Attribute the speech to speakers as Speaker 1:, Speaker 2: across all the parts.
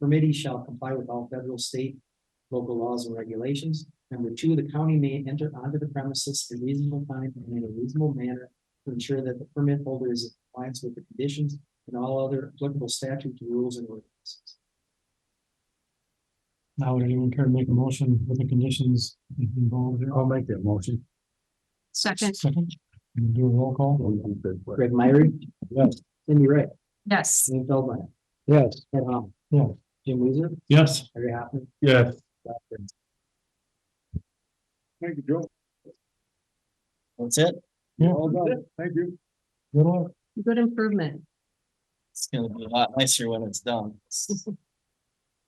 Speaker 1: Committee shall comply with all federal, state, local laws and regulations. Number two, the county may enter onto the premises in reasonable time and in a reasonable manner to ensure that the permit holder is in compliance with the conditions and all other applicable statutes, rules, and ordinances.
Speaker 2: Now, would anyone care to make a motion with the conditions involved here? I'll make that motion.
Speaker 3: Second,
Speaker 2: Second, We'll do a roll call.
Speaker 1: Greg Myrie.
Speaker 2: Yes.
Speaker 1: Cindy Wright.
Speaker 3: yes,
Speaker 1: Jim Feldmeyer.
Speaker 2: Yes.
Speaker 1: Ed Hamel.
Speaker 2: Yeah.
Speaker 1: Jim Weezer.
Speaker 2: Yes.
Speaker 1: Larry Hoffman.
Speaker 2: Yes.
Speaker 1: Ralph Green.
Speaker 2: Thank you, Joe.
Speaker 1: That's it.
Speaker 2: Yeah.
Speaker 1: All done.
Speaker 2: Thank you. Good luck.
Speaker 3: good improvement.
Speaker 4: It's gonna be a lot nicer when it's done. It's-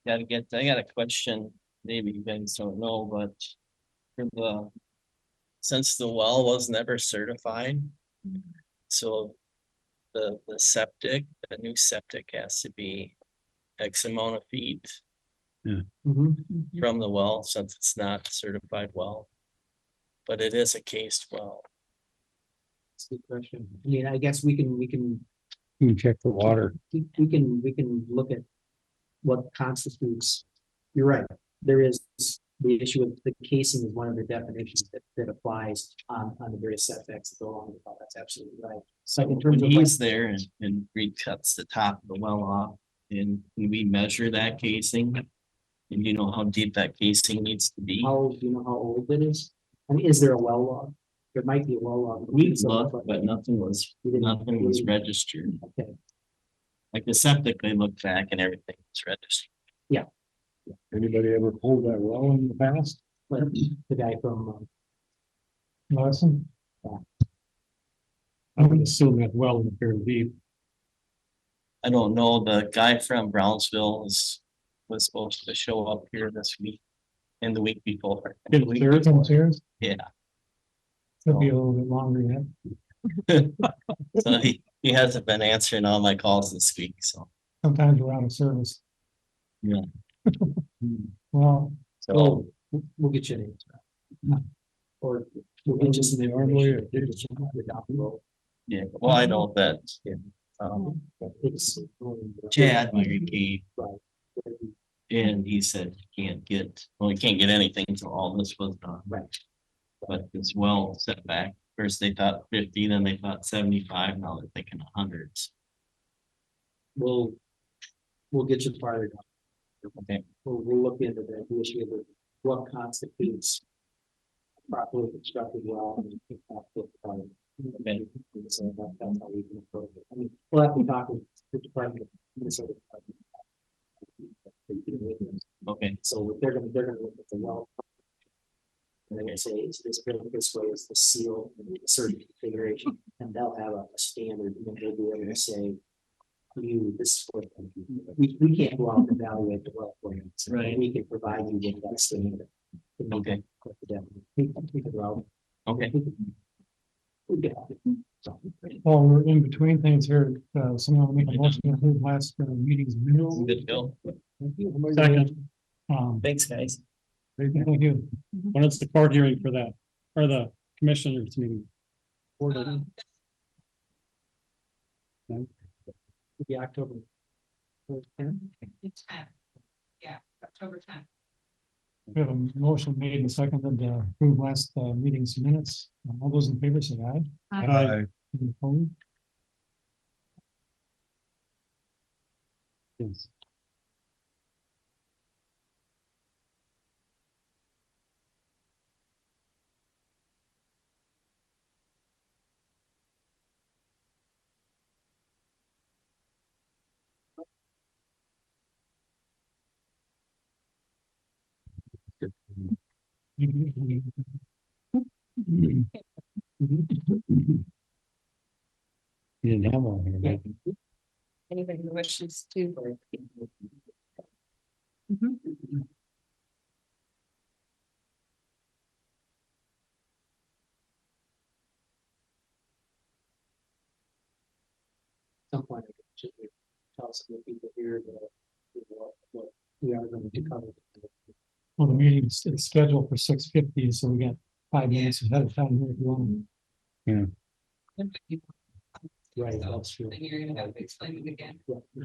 Speaker 4: Gotta get, I got a question, maybe you guys don't know, but for the, since the well was never certified,
Speaker 3: Mm.
Speaker 4: so the, the septic, the new septic has to be X amount of feet
Speaker 2: Mm-hmm.
Speaker 1: Mhm.
Speaker 4: from the well, since it's not certified well. But it is a cased well.
Speaker 1: That's a good question. I mean, I guess we can, we can,
Speaker 2: You check the water.
Speaker 1: we we can, we can look at what constitutes. You're right. There is the issue of the casing is one of the definitions that, that applies on, on the various setbacks that go along with all. That's absolutely right.
Speaker 4: So
Speaker 1: in terms
Speaker 4: when
Speaker 1: of like-
Speaker 4: he's there and, and Reed cuts the top of the well off and can we measure that casing. And you know how deep that casing needs to be.
Speaker 1: How, do you know how old it is? I mean, is there a well log? There might be a well log.
Speaker 4: We looked, but nothing was,
Speaker 1: We didn't-
Speaker 4: nothing was registered.
Speaker 1: Okay.
Speaker 4: Like the septic, they looked back and everything was registered.
Speaker 2: Anybody ever pulled that well in the past? uh,
Speaker 1: But the guy from, um,
Speaker 2: Lesson? I would assume that well is fairly deep.
Speaker 4: I don't know, the guy from Brownsville was, was supposed to show up here this week. And the week before.
Speaker 2: Is it serious? Almost serious?
Speaker 4: Yeah.
Speaker 2: Could be a little bit longer yet.
Speaker 4: So he, he hasn't been answering all my calls this week, so.
Speaker 2: Sometimes we're out of service.
Speaker 4: Yeah.
Speaker 2: Well,
Speaker 4: So.
Speaker 1: oh, we'll- we'll get you an answer. Or we'll get you some information. We'll get you the document.
Speaker 4: Yeah, well, I know that.
Speaker 1: Yeah.
Speaker 4: Um,
Speaker 1: It's-
Speaker 4: Chad, my key,
Speaker 1: Right.
Speaker 4: and he said he can't get, well, he can't get anything till all this was done.
Speaker 1: Right.
Speaker 4: But it's well set back. First they thought fifty, then they thought seventy-five, now they're thinking hundreds.
Speaker 1: We'll, we'll get you farther. down.
Speaker 4: Okay.
Speaker 1: We'll, we'll look into that the issue of what constitutes properly constructed well. and if that's what, um,
Speaker 4: Okay.
Speaker 1: so that- that's how we can approach it. I mean, we'll have to talk with the Department of Minnesota. Department of-
Speaker 4: Okay,
Speaker 1: So they're gonna, they're gonna look at the well. And they're gonna say, it's this built this way, it's the seal, and a certain configuration, and they'll have a a standard, and then they'll be able to say. You, this is what, we, we can't go out and evaluate the well for you, so
Speaker 4: Right.
Speaker 1: we can provide you with that standard.
Speaker 4: Okay.
Speaker 1: We can figure out.
Speaker 4: okay,
Speaker 1: We get it. So,
Speaker 2: while we're in between things here, uh, someone make a motion to approve last uh, meeting's minutes.
Speaker 4: good deal.
Speaker 2: Second. Um,
Speaker 4: Thanks, guys.
Speaker 2: thank you.
Speaker 1: Mm-hmm.
Speaker 2: When is the court hearing for that, or the commissioners meeting?
Speaker 1: It'll be October.
Speaker 5: Yeah, October tenth.
Speaker 2: We have a motion made and seconded to approve last uh, meeting's minutes. Uh, All those in favor say aye.
Speaker 5: Aye.
Speaker 2: Any opposed? Yes. You didn't have one here, did you?
Speaker 5: Anybody who wishes to.
Speaker 1: some point, I think, should we tell some of the people here that, you know, what, what we are going to cover.
Speaker 2: Well, the meeting's it's scheduled for six fifty, so we got five minutes ahead of time here if you want.
Speaker 1: Right, that's true.
Speaker 5: Then you're gonna have to explain it again.
Speaker 1: Yeah.